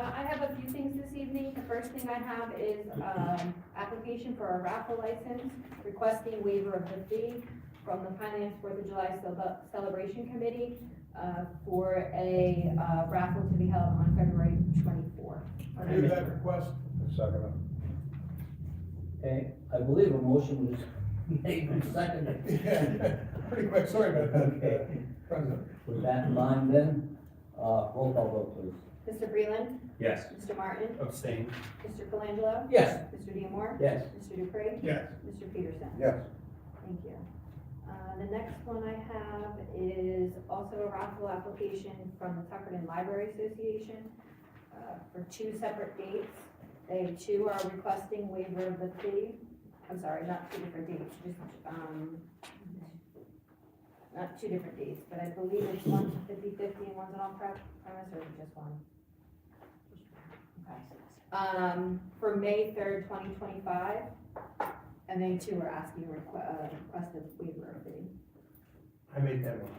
Uh, first thing I have is, um, application for a raffle license, requesting waiver of the fee from the Finance Fourth of July Celeb- Celebration Committee, uh, for a, uh, raffle to be held on February twenty-fourth. I move that request. Second. Okay, I believe a motion was made and seconded. Pretty quick, sorry about that, Okay. uh, President. With that in mind then, uh, roll call vote please. Mr. Breland, Yes. Mr. Martin, Abstain. Mr. Colangelo, Yes. Mr. Diemar, Yes. Mr. Dupree, Yes. Mr. Peterson. Yes. Thank you. Uh, the next one I have is also a raffle application from the Tuckerton Library Association, uh, for two separate dates. They too are requesting waiver of the fee, I'm sorry, not two different dates, just, um, not two different dates, but I believe it's one's fifty-fifty and one's an on-premise, or is it just one? Okay. Um, for May third, twenty twenty-five, and they too are asking a requ- uh, request of waiver of the, I made that one.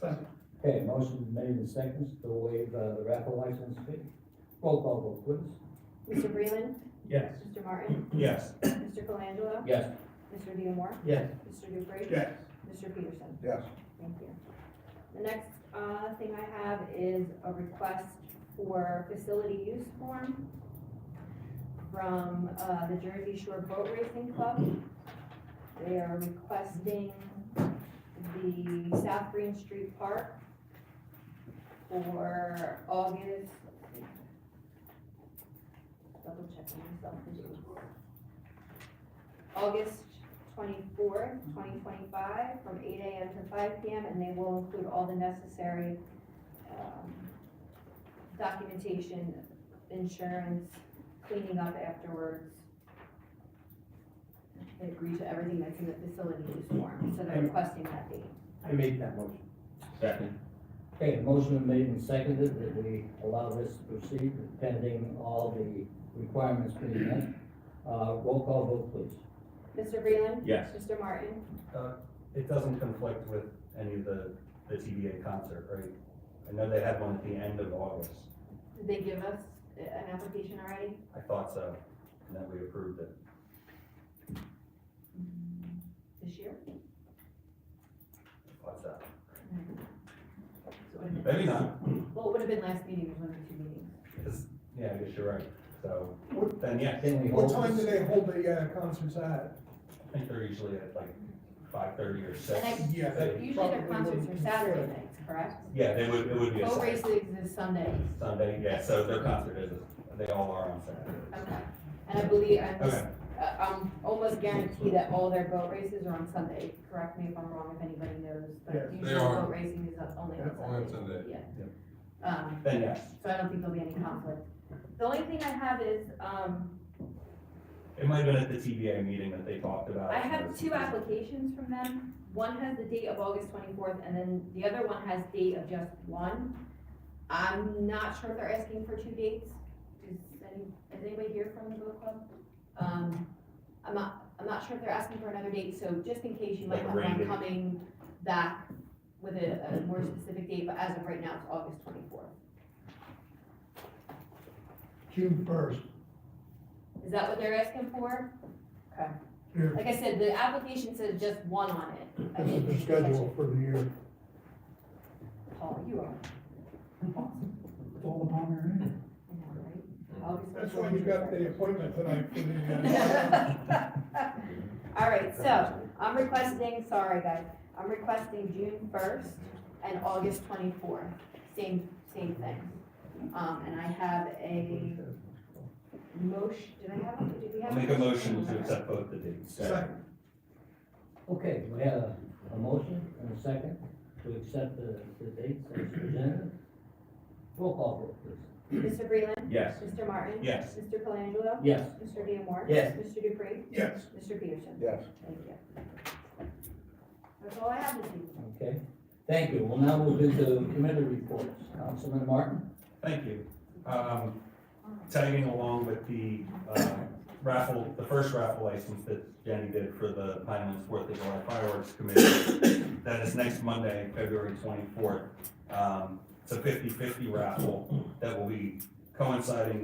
Second. Okay, motion made and seconded to waive uh, the raffle license fee. Roll call vote please. Mr. Breland, Yes. Mr. Martin, Yes. Mr. Colangelo, Yes. Mr. Diemar, Yes. Mr. Dupree, Yes. Mr. Peterson. Yes. Thank you. The next, uh, thing I have is a request for facility use form from, uh, the Jersey Shore Boat Racing Club. They are requesting the South Green Street Park for August. Double checking myself. August twenty-fourth, twenty twenty-five, from eight AM to five PM, and they will include all the necessary, um, documentation, insurance, cleaning up afterwards. They agree to everything that's in the facility use form, so they're requesting that date. I made that motion. Second. Okay, motion made and seconded that we allow this to proceed pending all the requirements being met. Uh, roll call vote please. Mr. Breland, Yes. Mr. Martin, It doesn't conflict with any of the, the TBA concert, right? I know they had one at the end of August. did they give us a- an application already? I thought so, and then we approved it. This year? What's that? So it would've been- Maybe not, Well, it would have been last meeting, it was one of the two meetings. because, yeah, I guess you're right. So, then, yeah, Can we What hold time do this? they hold the uh, concerts at? I think they're usually at like five thirty or six. And Yeah. They- Usually their Probably concerts are wouldn't- Saturday nights, correct? Yeah, they would, it would be a Boat Saturday, races is Sundays, Sunday, yeah, so their concert is, they all are on Saturday. okay. And I believe, I'm, just- Okay, uh, I'm almost guaranteed that all their boat races are on Sunday, correct me if I'm wrong, if anybody knows, Yes, but they usually are. boat racing is only on Sunday. only on Yeah. Um, then yes, so I don't think there'll be any conflict. The only thing I have is, um, it might have been at the TBA meeting that they talked about. I have two applications from them. One has the date of August twenty-fourth, and then the other one has date of just one. I'm not sure if they're asking for two dates. Is any, is anybody here from the book club? Um, I'm not, I'm not sure if they're asking for another date, so just in case you might Like have rain one date. coming back with a, a more specific date, but as of right now, it's August twenty-fourth. June first. Is that what they're asking for? Okay. Yeah. Like I said, the application says just one on it. I This is didn't the catch it. schedule for the year. Paul, you are. It's all upon your head. I know, right? August That's why you got the 14th. appointment tonight for the, uh, All right, so I'm requesting, sorry guys, I'm requesting June first and August twenty-fourth, same, same thing. Um, and I have a motion, did I have, did we I'll have? make a motion to accept both the dates. Second. Okay, we have a- a motion and a second to accept the, the dates as presented. Roll call vote please. Mr. Breland, Yes, Mr. Martin. yes. Mr. Colangelo. Yes. Mr. Diemar. Yes. Mr. Dupree. yes. Mr. Peterson. Yes. Thank you. That's all I have this evening. Okay, thank you. We'll now move into committee reports. Councilman Martin? Thank you. Um, tagging along with the, uh, raffle, the first raffle license that Jenny did for the Pinelands Fourth of July Fireworks Committee. That is next Monday, February twenty-fourth. Um, it's a fifty-fifty raffle that will be coinciding with.